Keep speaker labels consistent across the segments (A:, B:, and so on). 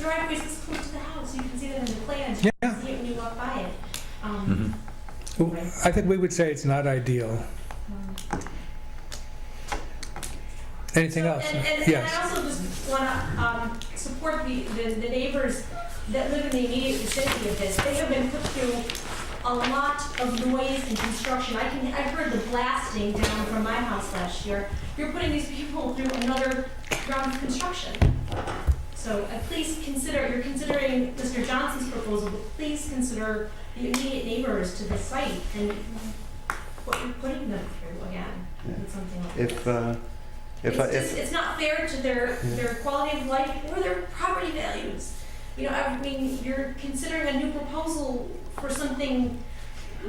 A: driveway's this close to the house, you can see that in the plans. You
B: Yeah,
A: can see it when you walk by it. Um,
C: Mhm.
B: I think we would say it's not ideal.
A: um,
B: Anything
A: so-
B: else?
A: And, and, and
B: Yes.
A: I also just want to um, support the, the, the neighbors that live in the immediate vicinity of this. They have been put through a lot of noise and construction. I can, I heard the blasting down from my house last year. You're putting these people through another round of construction. So uh, please consider, you're considering Mr. Johnson's proposal, but please consider the immediate neighbors to the site and what you're putting them through again, with something like
D: If,
A: this.
D: uh, if, I-
A: It's just,
D: if,
A: it's not fair to their, their quality of life or their property values. You know, I mean, you're considering a new proposal for something,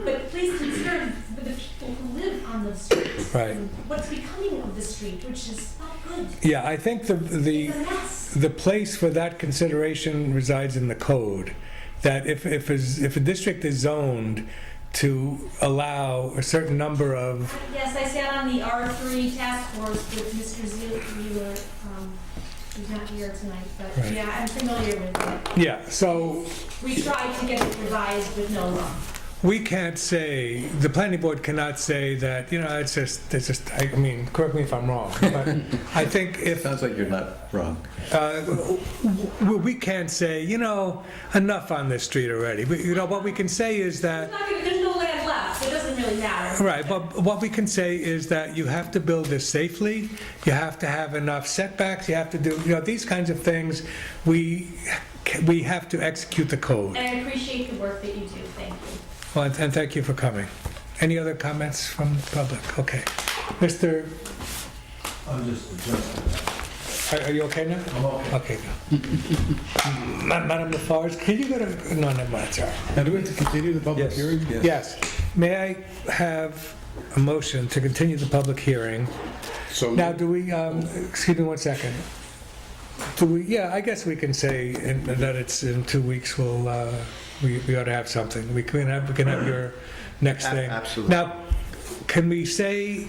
A: but please consider the people who live on the streets.
B: Right.
A: and What's becoming of the street, which is not good.
B: Yeah, I think the, the,
A: It's a mess.
B: the place for that consideration resides in the code. That if, if, is- if a district is zoned to allow a certain number of,
A: Yes, I sat on the R3 task force with Mr. Zeeler, um, who's not here tonight, but
B: Right.
A: yeah, I'm familiar with it.
B: yeah, so
A: We tried to get it revised with no luck.
B: We can't say, the planning board cannot say that, you know, it's just, it's just, I mean, correct me if I'm wrong, but I think if,
C: Sounds like you're not wrong.
B: uh, w- w- we can't say, you know, enough on this street already. But, you know, what we can say is
A: It's
B: that,
A: not gonna, there's no land left, it doesn't really matter.
B: right, but what we can say is that you have to build this safely, you have to have enough setbacks, you have to do, you know, these kinds of things, we, ca- we have to execute the code.
A: And I appreciate the work that you do, thank you.
B: Well, and- and thank you for coming. Any other comments from the public? Okay. Mr.,
E: I'm just adjusting.
B: are are you okay now?
E: I'm okay.
B: Okay. go. Ma- Madam Lafarge, can you go to, no, no, no, sorry.
F: Now, do we have to continue the public
B: Yes.
F: hearing?
B: Yes. May I have a motion to continue the public hearing?
F: So,
B: Now, do we, um, excuse me one second. Do we, yeah, I guess we can say in- that it's in two weeks, we'll, uh, we we ought to have something. We can have, we can have your next
D: A-
B: thing.
D: absolutely.
B: Now, can we say,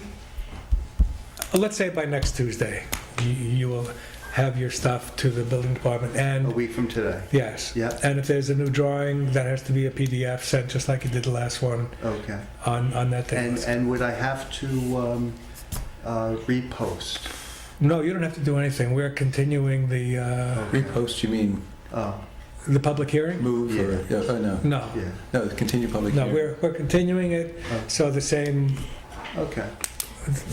B: let's say by next Tuesday, you- you will have your stuff to the building department
D: a
B: and
D: week from today,
B: Yes.
D: Yeah.
B: And if there's a new drawing, that has to be a PDF sent, just like you did the last one
D: okay.
B: on, on that thing.
D: And, uh, and would I have to um, uh, repost?
B: No, you don't have to do anything. We're continuing the, uh,
C: Repost, you mean
D: Oh,
B: the public hearing?
C: move or, yeah, oh, no.
B: No,
D: yeah,
C: No, continue public
B: no,
C: hearing.
B: we're, we're continuing it,
D: Oh.
B: so the same,
D: okay.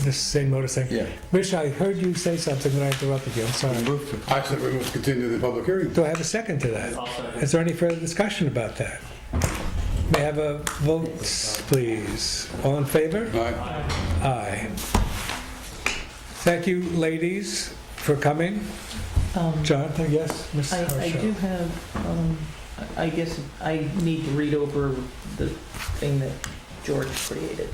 B: the same notice thing.
C: Yeah.
B: Rich, I heard you say something when I interrupted you, I'm sorry.
C: Move to-
F: I said we must continue the public hearing.
B: Do I have a second to that? Is there any further discussion about that? May I have a vote, please? All in favor?
F: Aye.
B: Aye. Thank you, ladies, for coming.
G: Um,
B: Jonathan, Uh, yes, Ms.
G: I, I
B: Harshaw?
G: do have, um, I I guess I need to read over the thing that George created.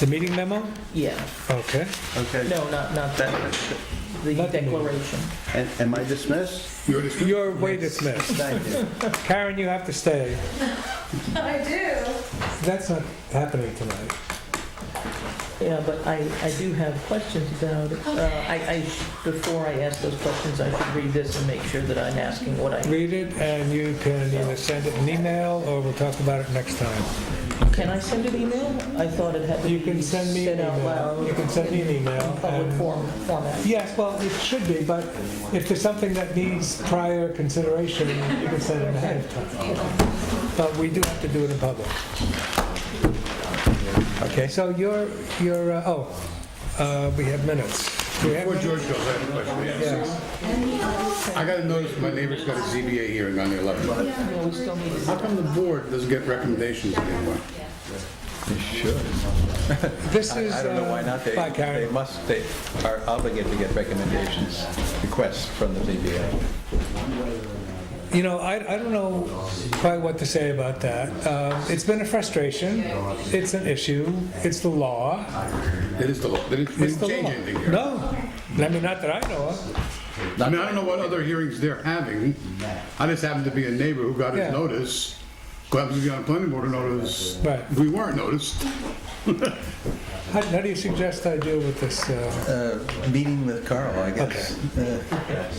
B: The meeting memo?
G: Yeah,
B: Okay.
D: Okay.
G: no, not, not that,
D: That-
G: the
B: Not the meeting.
G: declaration.
D: and- Am I dismissed?
F: You're just-
B: You're way dismissed.
D: Thank you.
B: Karen, you have to stay.
A: I do.
B: That's not happening tonight.
G: Yeah, but I, I do have questions about it. Uh, I, I, sh- before I ask those questions, I should read this and make sure that I'm asking what I
B: Read it, and you can either send it an email, or we'll talk about it next time.
G: Can I send an email? I thought it had to
B: You
G: be
B: can send me an
G: said out
B: email.
G: loud.
B: You can send me an
G: in
B: email.
G: Public
B: and-
G: form, format.
B: Yes, well, it should be, but if there's something that needs prior consideration, you can send it ahead of time. But we do have to do it in public. Okay, so you're, you're, uh, oh, uh, we have minutes. Do we have
F: Before
B: minutes?
F: George goes, I have a question. to ask.
B: Yes.
F: I got a notice, my neighbor's got a ZBA hearing on the 11th.
G: No, we still need to
F: How come the board doesn't get recommendations anymore?
C: Sure.
B: This
C: I
B: is. uh,
C: I don't know why not. They,
B: Bye, Karen.
C: they must, they are obligated to get recommendations, requests from the ZBA.
B: You know, I, I don't know quite what to say about that. Um, It's been a frustration, it's an issue, it's the law.
F: It is the law. They didn't they
B: It's
F: didn't
B: the
F: change
B: law.
F: anything here.
B: No, I mean, not that I know of.
F: I mean, I don't know what other hearings they're having. I just happened to be a neighbor who got
B: Yeah.
F: his notice, who happens to be on planning board notice.
B: Right.
F: We weren't noticed.
B: How how do you suggest I deal with this? uh,
C: Uh, Meeting with Carl, I guess. Uh,